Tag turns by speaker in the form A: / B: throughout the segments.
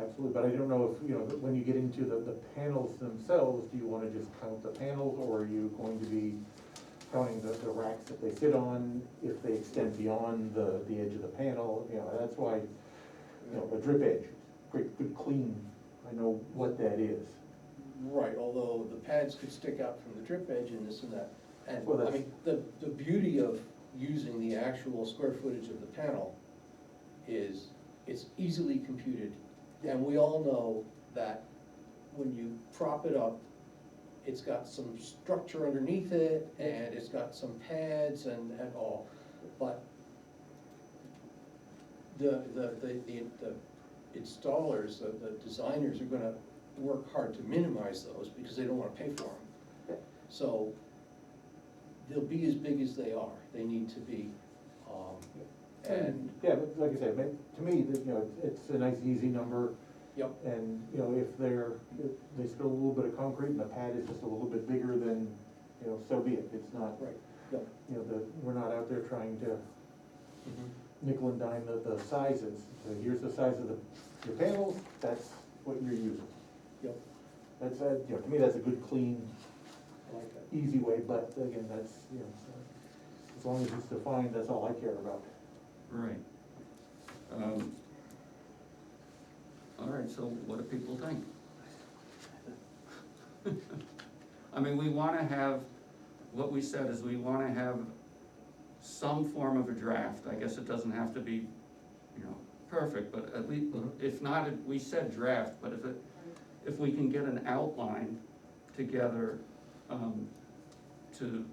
A: absolutely, but I don't know if, you know, when you get into the, the panels themselves, do you wanna just count the panels, or are you going to be counting the, the racks that they sit on, if they extend beyond the, the edge of the panel, you know, that's why, you know, a drip edge, great, good clean, I know what that is.
B: Right, although the pads could stick out from the drip edge and this and that. And,
A: Well,
B: I
A: that's-
B: mean, the, the beauty of using the actual square footage of the panel is it's easily computed. And we all know that when you prop it up, it's got some structure underneath it and it's got some pads and, and all. But the, the, the, the the installers, the, the designers are gonna work hard to minimize those because they don't wanna pay for them. So they'll be as big as they are, they need to be, um, and,
A: Yeah, but like I said, ma- to me, that, you know, it's- it's a nice, easy number,
B: yep,
A: and, you know, if they're, if they spill a little bit of concrete and the pad is just a little bit bigger than, you know, so be it, it's not,
B: right, yep.
A: you know, the, we're not out there trying to
B: Mm-hmm.
A: nickel and dime the, the sizes. So here's the size of the, your panels, that's what you're using.
B: Yep,
A: That's, a- you know, to me, that's a good, clean,
B: I like that.
A: easy way, but again, that's, you know, so as long as it's defined, that's all I care about.
C: Right. Um, All right, so what do people think? I mean, we wanna have, what we said is we wanna have some form of a draft, I guess it doesn't have to be, you know, perfect, but at least,
A: Mhm.
C: if not, it- we said draft, but if it, if we can get an outline together, um, to,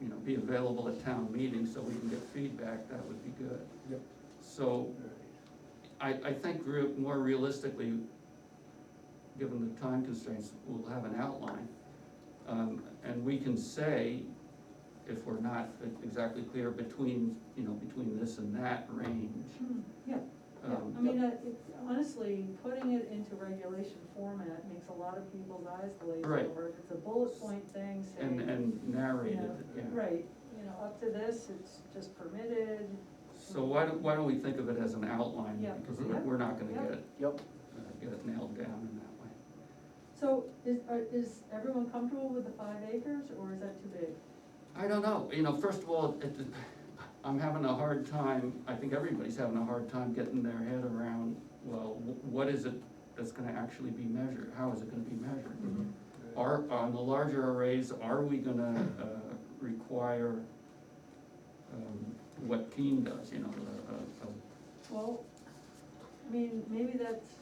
C: you know, be available at town meeting so we can get feedback, that would be good.
B: Yep.
C: So I, I think re- more realistically, given the time constraints, we'll have an outline. Um, and we can say, if we're not exactly clear, between, you know, between this and that range.
D: Hmm, Yeah, yeah,
C: Um,
D: I mean, uh, it- honestly, putting it into regulation format makes a lot of people's eyes glaze
C: Right.
D: over. If it's a bullet point thing saying.
C: And, and narrate
D: you
C: it,
D: know,
C: yeah.
D: Right, you know, up to this, it's just permitted.
C: So why don't, why don't we think of it as an outline?
D: Yeah.
C: Because we're, we're not gonna get it,
B: Yep,
C: uh, get it nailed down in that way.
D: So is, are- is everyone comfortable with the five acres, or is that too big?
C: I don't know, you know, first of all, it, it- I'm having a hard time, I think everybody's having a hard time getting their head around, well, wh- what is it that's gonna actually be measured? How is it gonna be measured? Are, on the larger arrays, are we gonna, uh, require, um, what Keen does, you know, uh, a, a, a
D: Well, I mean, maybe that's,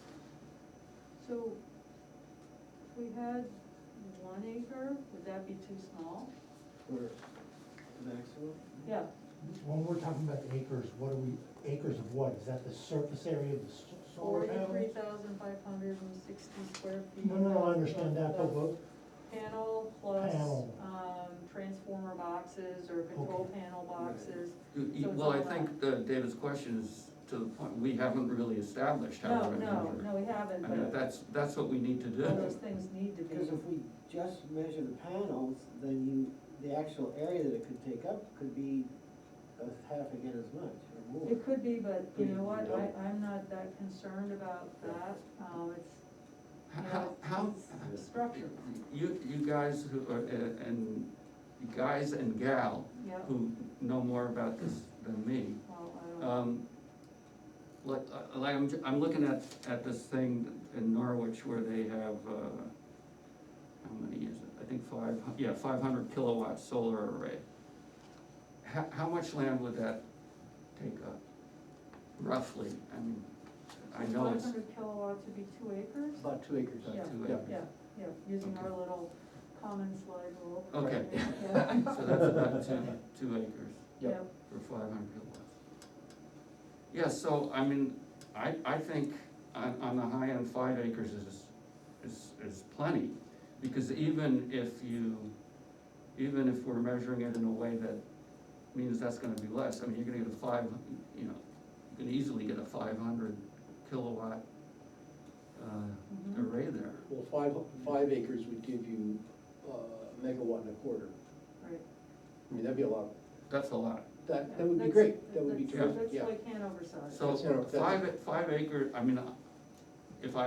D: so if we had one acre, would that be too small?
B: we're maximum.
D: Yeah,
E: When we're talking about the acres, what are we, acres of what? Is that the surface area of the s- solar
D: forty-three
E: panel?
D: thousand five hundred and sixty square feet.
E: No, no, I understand that, but what,
D: Panel plus,
E: Panel.
D: um, transformer boxes or control panel boxes.
C: You- you-
D: So it's
C: Well, I
D: all
C: think uh, David's question is to the point, we haven't really established how
D: No,
C: we're gonna
D: no,
C: measure.
D: no, we haven't,
C: I mean,
D: but
C: that's, that's what we need to
D: all
C: do.
D: those things need to be.
F: Because if we just measure the panels, then you, the actual area that it could take up could be a half again as much or more.
D: It could be, but you know what,
F: Yeah.
D: I, I'm not that concerned about that, um, it's, you
C: How,
D: know,
C: how,
D: it's structure,
C: you, you guys who are, uh, and, you guys and gal
D: yeah,
C: who know more about this than me,
D: well, I don't.
C: um, like, uh, like, I'm, j- I'm looking at, at this thing in Norwich where they have, uh, how many is it? I think five, hu- yeah, five hundred kilowatt solar array. How, how much land would that take up roughly? I mean, I know
D: Five
C: it's
D: hundred kilowatts would be two acres,
B: About two acres.
C: about
D: yeah,
C: two
B: yeah,
C: acres.
D: yeah, yeah, using our
C: Okay.
D: little common slide rule.
C: Okay.
D: Yeah,
C: So that's about two, two acres
D: yeah,
B: Yep.
C: for five hundred kilowatts. Yeah, so, I mean, I, I think on, on the high end, five acres is, is, is plenty. Because even if you, even if we're measuring it in a way that means that's gonna be less, I mean, you're gonna get a five, you know, you can easily get a five hundred kilowatt, uh,
D: Mhm.
C: array there.
B: Well, five, five acres would give you uh, a megawatt and a quarter,
D: right.
B: I mean, that'd be a lot,
C: That's a lot.
B: that,
D: Yeah,
B: that would be
D: that's-
B: great, that would be
D: that's-
B: terrific, yeah.
D: That's like Hanover size.
C: So,
B: That's- that's-
C: five, five acre, I mean, if I